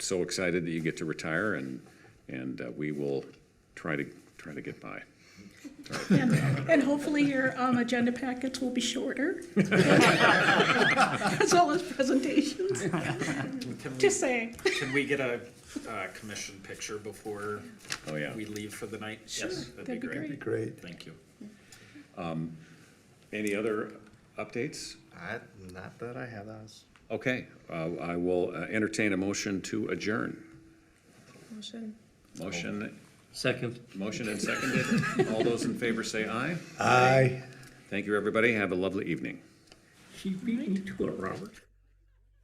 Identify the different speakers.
Speaker 1: so excited that you get to retire, and, and uh, we will try to, try to get by.
Speaker 2: And and hopefully your um, agenda packets will be shorter. As well as presentations.
Speaker 3: Can we,
Speaker 2: Just saying.
Speaker 3: can we get a, uh, commission picture before
Speaker 1: Oh, yeah.
Speaker 3: we leave for the night?
Speaker 2: Sure,
Speaker 3: Yes,
Speaker 2: that'd be great.
Speaker 4: Great.
Speaker 3: Thank you.
Speaker 1: Any other updates?
Speaker 4: I, not that I have those.
Speaker 1: Okay, uh, I will uh, entertain a motion to adjourn.
Speaker 2: Motion.
Speaker 1: Motion,
Speaker 5: Second.
Speaker 1: motion and seconded. All those in favor say aye.
Speaker 4: Aye.
Speaker 1: Thank you, everybody. Have a lovely evening.
Speaker 5: She beat me to it, Robert.